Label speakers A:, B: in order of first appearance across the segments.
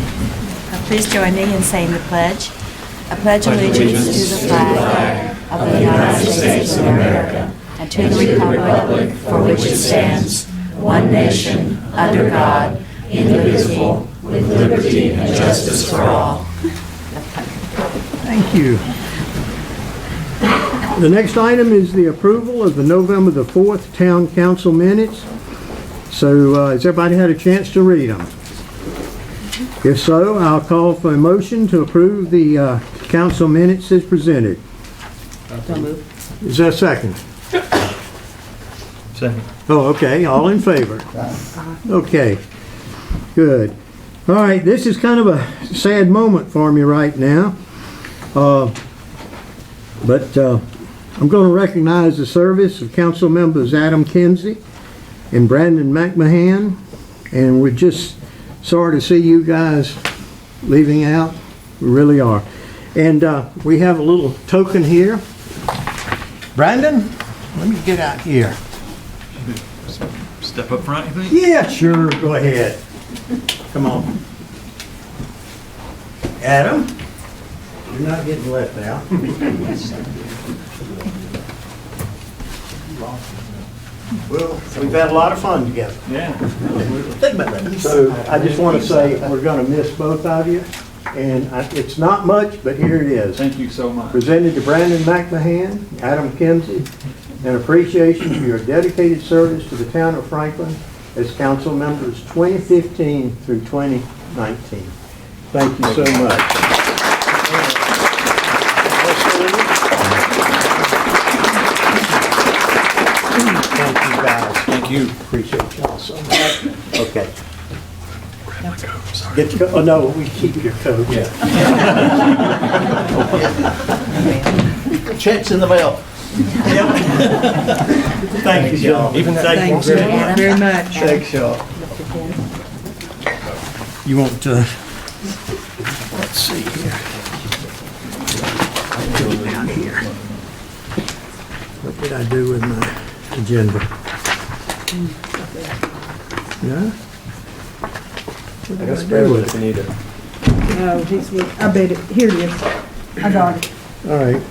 A: Uh, Please join me in saying the pledge. I pledge allegiance to the flag of the United States of America and to the republic for which it stands, one nation, under God, indivisible, with liberty and justice for all.
B: Thank you. The next item is the approval of the November the 4th Town Council minutes. So uh, has everybody had a chance to read them? If so, I'll call for a motion to approve the uh, council minutes as presented. Is there a second?
C: Second.
B: Oh, okay, all in favor? Okay, good. All right, this is kind of a sad moment for me right now. Uh, But uh, I'm going to recognize the service of council members Adam Kinsey and Brandon McMahon, and we're just sorry to see you guys leaving out, we really are. And uh, we have a little token here. Brandon, let me get out here.
C: Step up front, you think?
B: Yeah, sure, go ahead. Come on. Adam, you're not getting left out. Well, we've had a lot of fun together.
C: Yeah.
B: Think about that. So I just want to say, we're going to miss both of you, and I- it's not much, but here it is
C: Thank you so much.
B: presented to Brandon McMahon, Adam Kinsey, an appreciation for your dedicated service to the town of Franklin as council members 2015 through 2019. Thank you so much. Thank you guys,
C: Thank you.
B: appreciate y'all so much. Okay. Get your, oh no, we keep your coat. Yeah.
D: Checks in the mail.
B: Thank you, y'all.
C: Even that-
B: Thank you very much.
A: very much.
B: Thanks, y'all. You want to, let's see here. Go down here. What did I do with my agenda? Yeah? What did I do with it?
E: No, he's with, Oh, I bet it, here it is. I got it.
B: All right,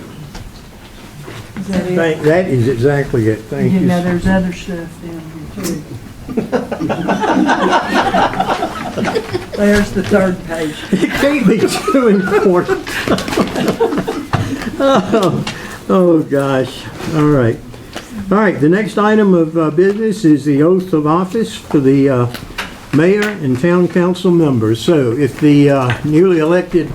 E: Is that it?
B: Thank- that is exactly it, thank
E: You
B: you.
E: know, there's other stuff down here too. There's the third page.
B: You can't be too important. Oh, oh, gosh. All right. All right, the next item of uh, business is the oath of office for the uh, mayor and town council members. So if the uh, newly elected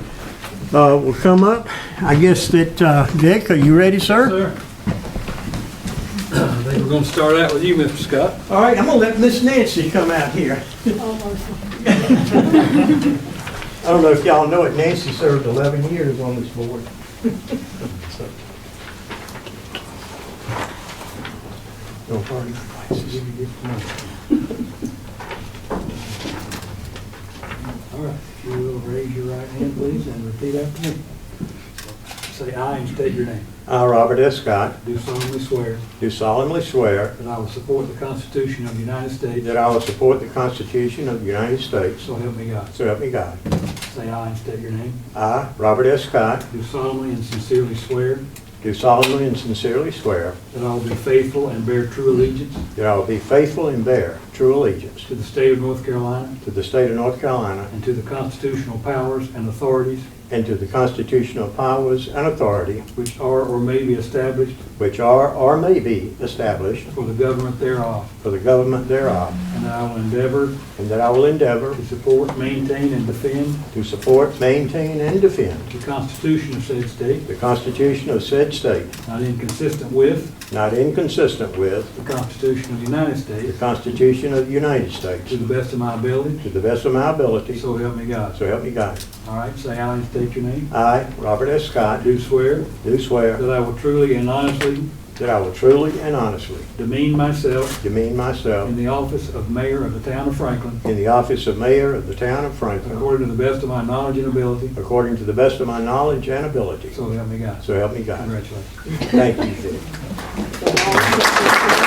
B: uh, will come up, I guess that, uh, Dick, are you ready, sir?
F: Sir. I think we're going to start out with you, Mr. Scott.
B: All right, I'm gonna let Miss Nancy come out here. I don't know if y'all know it, Nancy served 11 years on this board. So- No party devices.
F: All right, if you will, raise your right hand, please, and repeat after me. Say aye and state your name.
B: I, Robert S. Scott,
F: Do solemnly swear
B: do solemnly swear
F: that I will support the Constitution of the United States,
B: that I will support the Constitution of the United States,
F: so help me God.
B: so help me God.
F: Say aye and state your name.
B: I, Robert S. Scott,
F: Do solemnly and sincerely swear
B: do solemnly and sincerely swear
F: that I will be faithful and bear true allegiance
B: that I will be faithful and bear true allegiance
F: to the state of North Carolina
B: to the state of North Carolina
F: and to the constitutional powers and authorities
B: and to the constitutional powers and authority
F: which are or may be established
B: which are or may be established
F: for the government thereof,
B: for the government thereof,
F: and that I will endeavor
B: and that I will endeavor
F: to support, maintain, and defend
B: to support, maintain, and defend
F: The Constitution of said state,
B: the Constitution of said state,
F: not inconsistent with
B: not inconsistent with
F: the Constitution of the United
B: the
F: States,
B: Constitution of the United
F: to
B: States,
F: the best of my ability,
B: to the best of my ability, so
F: so help me God.
B: help me God.
F: All right, say aye and state your name.
B: I, Robert S.
F: I
B: Scott,
F: do swear
B: do swear
F: that I will truly and honestly
B: that I will truly and honestly
F: demean myself
B: demean myself
F: in the office of mayor of the town of Franklin,
B: in the office of mayor of the town of Franklin,
F: according to the best of my knowledge and ability,
B: according to the best of my knowledge and ability,
F: so help me God.
B: so help me God.
F: Congratulations.
B: Thank you, Dick.